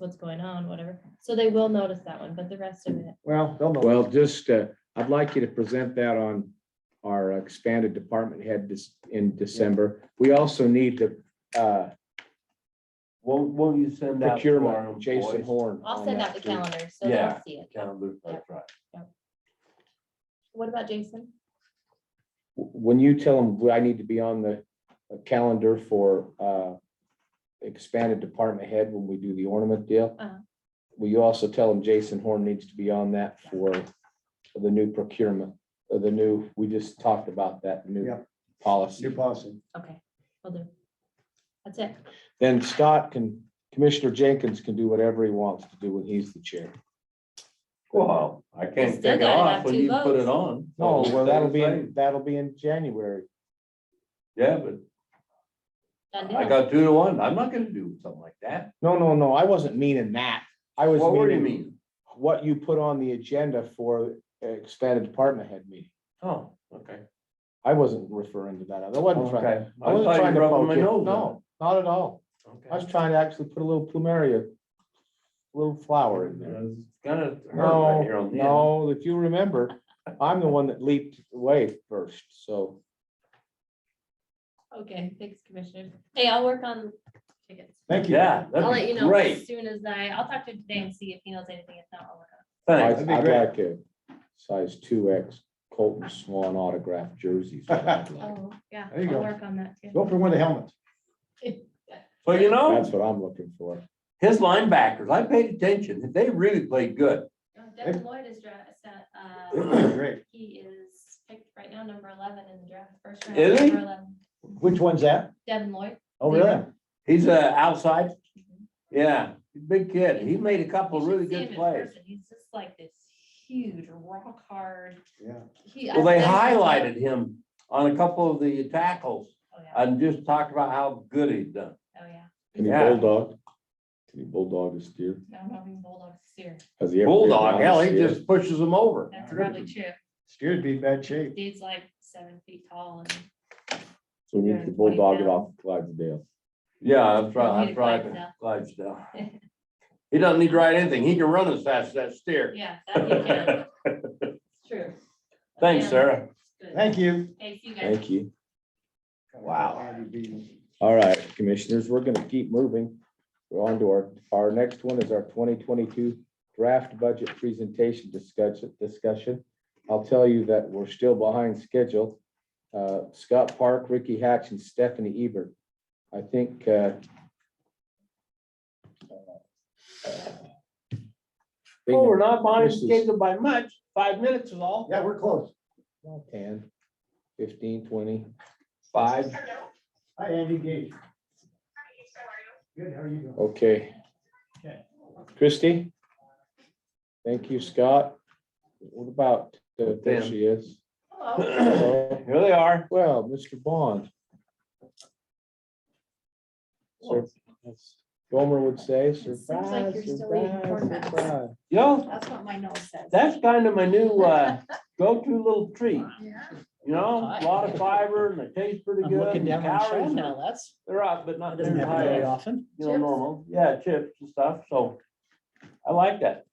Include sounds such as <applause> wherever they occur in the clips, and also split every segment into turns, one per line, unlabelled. what's going on, whatever. So they will notice that one, but the rest of it,
Well, they'll know.
Well, just, uh, I'd like you to present that on our expanded department head this, in December. We also need to, uh,
Won't, won't you send out to our
procurement, Jason
employees?
Horn.
I'll
on
send
that
out the
too.
calendar, so
Yeah.
they'll see it.
Calendar, that's right.
What about Jason?
When you tell them I need to be on the uh, calendar for, uh, expanded department head when we do the ornament deal.
Uh-huh.
Will you also tell them Jason Horn needs to be on that for the new procurement, uh, the new, we just talked about that new
Yep.
policy.
New policy.
Okay, will do. That's it.
then Scott can, Commissioner Jenkins can do whatever he wants to do when he's the chair.
Well, I can't
Still
take it
gotta
off
have
when
two
you put
votes.
it on.
No, Oh, well, that'll be,
Same.
in- that'll be in January.
Yeah, but
Done
I
deal.
got two to one. I'm not gonna do something like that.
No, no, no, I wasn't meaning that. I was
What were you
meaning
mean?
what you put on the agenda for expanded department head meeting.
Oh, okay.
I wasn't referring to that. I wasn't trying,
Okay.
I wasn't
thought you
trying to
rubbed
poke
my
you.
nose in
No, not at all.
it. Okay.
I was trying to actually put a little plumeria, little flower in there.
It's Gonna hurt right here
No,
on the end.
no, if you remember, I'm the one that leaped away first, so.
Okay, thanks, Commissioner. Hey, I'll work on tickets.
Thank you.
Yeah,
I'll
that'd
let
be
you know as
great.
soon as I, I'll talk to him today and see if he knows anything. If not, I'll work on
I-
Thanks.
That'd be
I'd
great.
like a size two X Colton Swan autograph jerseys. I'd
<laughs>
like.
it. Oh, yeah,
There you
I'll
go.
work on that too.
Go for one of the helmets.
So you
That's
know,
what I'm looking for.
his linebackers, I paid attention. They really played good.
Devin
Uh, Lloyd is, uh,
It'd be Great.
<coughs> he is picked right now, number eleven in the draft, first
round, Is he? number
eleven.
Which one's that?
Devin Lloyd. Mm-hmm.
Oh, really?
He's a outside. Yeah, big kid. He made a couple really good plays.
He's just like this huge rock hard.
Yeah.
He-
Well, they
I've never-
highlighted him on a couple of the tackles
Oh, yeah,
and just talked about how good he'd done.
oh, yeah.
Can he
Yeah.
bulldog? Can he bulldog his deer?
I don't know if he's bulldog steer.
Has he ever?
Bulldog,
been around
hell,
his
he
deer?
just pushes them over.
That's probably true.
Steer'd be in bad shape.
Dude's like seven feet tall and.
So we need to bulldog it off Clydesdale.
Yeah, that's right,
Need
that's
a
right, Clydesdale.
<laughs>
He doesn't need to ride anything. He can run as fast as that steer.
Yeah, that
<laughs>
you can. It's True.
Thanks,
Yeah,
Sarah.
good.
Thank you.
Hey, see you guys.
Thank you.
Wow.
Andy Beaton.
All right, commissioners, we're gonna keep moving. We're on to our, our next one is our twenty twenty-two draft budget presentation discussion, discussion. I'll tell you that we're still behind schedule. Uh, Scott Park, Ricky Hatch, and Stephanie Ebert. I think, uh, uh,
Oh, we're not behind
This is-
schedule by much. Five minutes is all.
Yeah, we're close.
Ten, fifteen, twenty.
Five.
Hello.
Hi, Andy Gage.
Hi, how are you?
Good, how are you doing?
Okay.
Okay.
Christie? Thank you, Scott. What about, uh, there
Dan.
she is. <coughs>
Hello.
<clears throat> Here they are.
Well, Mr. Bond. Sur- as Gomer would say,
seems
surprise,
like you're still eating
surprise,
corn nuts."
surprise.
You know,
That's what my nose says.
that's kind of my
<laughs>
new, uh, go-to little treat.
Yeah.
You know, a lot of fiber and they taste pretty
I'm
good.
looking
and
down my show
calories are-
now, that's,
They're up, but not
doesn't
as
happen very
high as,
often.
you know,
Chips?
normal. Yeah, chips and stuff. So I like that.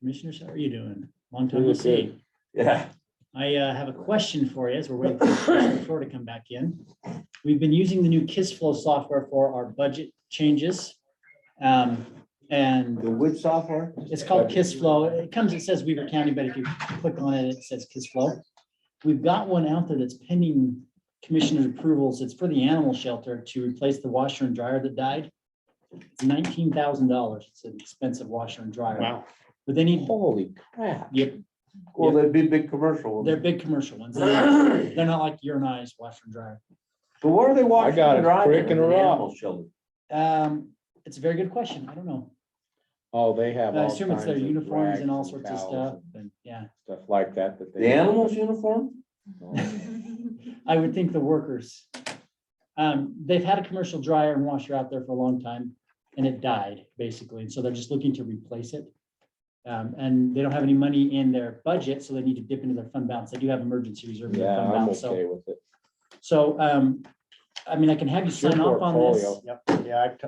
Commissioners, how are you doing? Long time
Really
no see.
Yeah.
I uh, have a question for you as we're waiting for Commissioner Flohr to come back in. We've been using the new KISS Flow software for our budget changes. Um, And
The wood software?
it's called KISS Flow. It comes, it says Weaver County, but if you click on it, it says KISS Flow. We've got one out there that's pending commissioner approvals. It's for the animal shelter to replace the washer and dryer that died. Nineteen thousand dollars. It's an expensive washer and dryer.
Wow.
But they need,
Holy crap.
yep,
Well, that'd be a big commercial.
they're big commercial ones. They're not-
<clears throat> So
they're not like urinized washer and dryer.
where are they
I
washing
got
and
a
drying
crick
in
and
the
a rock.
animal shelter?
Um, it's a very good question. I don't know.
Oh, they have
I
all
assume it's their
kinds of
uniforms and all
rags
sorts of
towels
stuff,
and
and yeah.
Stuff like that that they.
The animals uniform?
<laughs>
<laughs>
I would think the workers. Um, they've had a commercial dryer and washer out there for a long time and it died basically. And so they're just looking to replace it. Um, and they don't have any money in their budget, so they need to dip into their fund balance. They do have emergency reserve. in their
Yeah,
fund
I'm
balance, so-
okay with it.
So um,
I mean, I can have you
It's your
sign off on this.
portfolio.
Yep, yeah, I